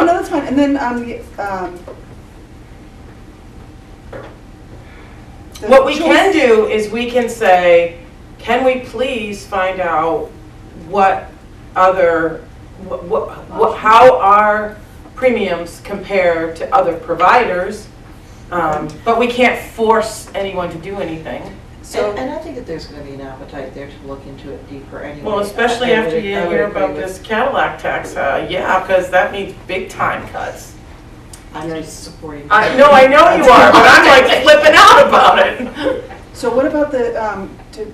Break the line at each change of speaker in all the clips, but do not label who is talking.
and then, um, the, um. the
What we
choice-
can do is we can say, can we please find out what other, what, what, how our premiums compare to other providers? Um, But we can't force anyone to do anything.
So,
And and I think that there's going to be an appetite there to look into it deeper anyway.
Well, especially
I- I would-
after you
I would
hear
agree
about
with-
this Cadillac tax, uh, yeah, because that means big time cuts.
I'm just supporting.
I, Uh, no, I know you are, but I'm like flipping out about it.
so what about the, um, to,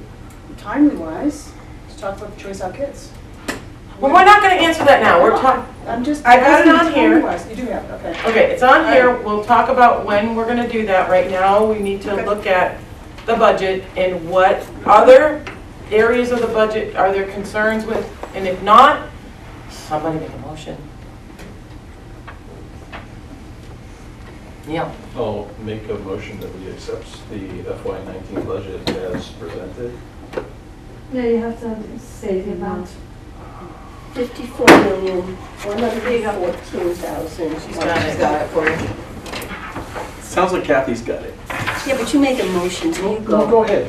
timely wise, to talk about the choice out kids?
Well, we're not gonna answer that now, we're talking,
I'm just.
I got it
asking
on here.
timely-wise. You do have, it, okay.
Okay, it's on here, we'll talk about when we're gonna do that. Right now, we need to
Okay.
look at the budget and what other areas of the budget are there concerns with? And if not, somebody make a motion. Neil,
I'll make a motion that we accept the FY nineteen budget as presented.
Yeah, you have to say the amount.
Fifty-four million, one hundred and fourteen thousand.
she's got
She's
it.
got it for you.
Sounds like Kathy's got it.
Yeah, but you make a motion, and you
No,
go.
go ahead.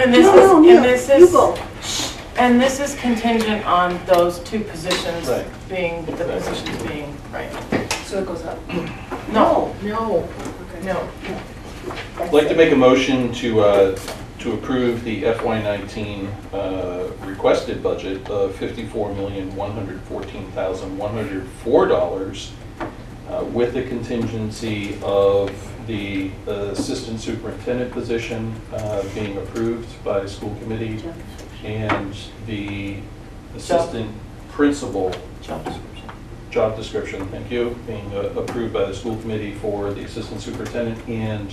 And this is,
No, no,
and
no,
this
You
is,
go.
and this is contingent on those two positions
Right.
being, the positions being, right?
So it goes up.
No. No. No.
I'd like to make a motion to, uh, to approve the FY nineteen, uh, requested budget of fifty-four million, one hundred fourteen thousand, one hundred four dollars uh, with the contingency of the assistant superintendent position, uh, being approved by school committee and the assistant principal
Job description.
job description, thank you, being uh, approved by the school committee for the assistant superintendent and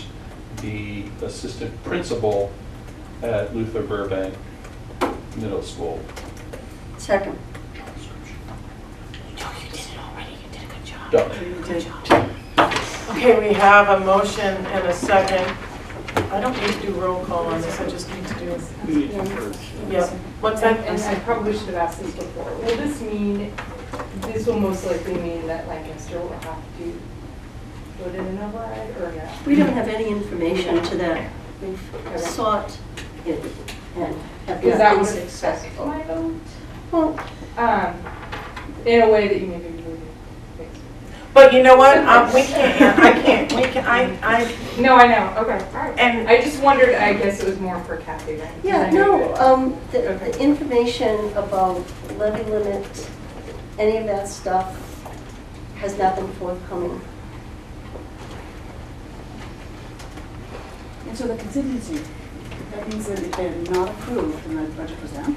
the assistant principal at Luther Burbank Middle School.
Second.
Joe, you did it already, you did a good job.
Done.
Okay, we have a motion and a second. I don't need to do roll call on this, I just need to do, yeah, what's that?
And I probably should have asked this before. Will this mean, this will most likely mean that Lancaster will have to put in an override or no?
We don't have any information to that. We've sought it and have
Is
not
that
been
what it says?
successful.
My vote?
Well,
Um, in a way that you maybe wouldn't. think.
But you know what, um, we can't, I can't, we can, I, I,
No, I know, okay, all right.
and
I just wondered, I guess it was more for Kathy then. 'cause
Yeah,
I know
no,
that-
um, the, the
Okay.
information about levy limit, any of that stuff has not been forthcoming.
And so the contingency, that means that if they're not approved, then the budget goes down?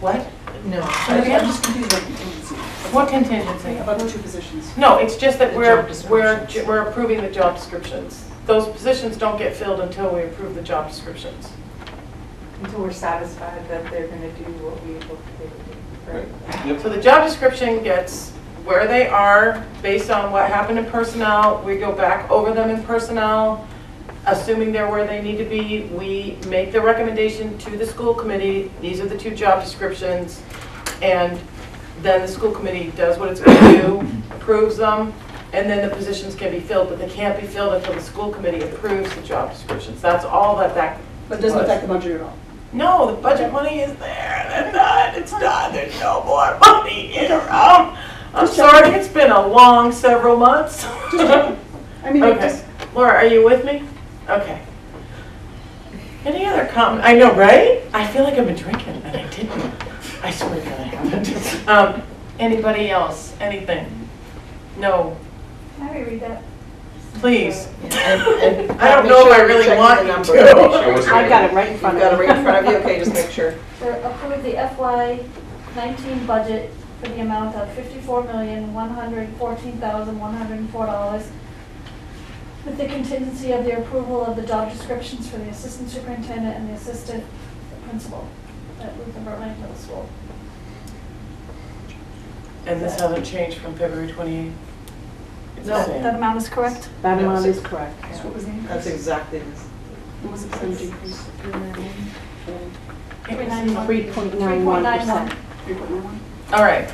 what? No.
I'm just confused about contingency,
What contingency?
about the two positions.
No, it's just that
The
we're,
job
we're,
descriptions.
we're approving the job descriptions. Those positions don't get filled until we approve the job descriptions.
Until we're satisfied that they're gonna do what we hope they would do, right?
Yep.
So the job description gets where they are based on what happened in personnel. We go back over them in personnel, assuming they're where they need to be. We make the recommendation to the school committee, these are the two job descriptions. And then the school committee does what it's going to do, approves them, and then the positions can be filled, but they can't be filled until the school committee approves the job descriptions. That's all that that
But it doesn't affect the budget at all.
no, the budget money is there, they're not, it's not, there's no more money in or out. I'm sorry, it's been a long several months.
I mean, it
Okay,
just,
Laura, are you with me? Okay. Any other comment? I know, right? I feel like I've been drinking and I didn't. I swear to God I haven't. Um, anybody else, anything? No,
Can I read that?
please.
And- and
I don't
make
know if
sure
I
you
really
check
want
the
you
number.
to.
I've got it right in front of you. You've got it right in front of you, okay, just make sure.
To approve the FY nineteen budget for the amount of fifty-four million, one hundred fourteen thousand, one hundred and four dollars with the contingency of the approval of the job descriptions for the assistant superintendent and the assistant principal at Luther Burbank Middle School.
And this hasn't changed from February 28th? It's the
No.
same.
That amount is correct?
That amount is
correct.
so what was the increase?
That's exactly, this.
What was the percentage increase?
Three point nine one.
Three point nine one?
All right,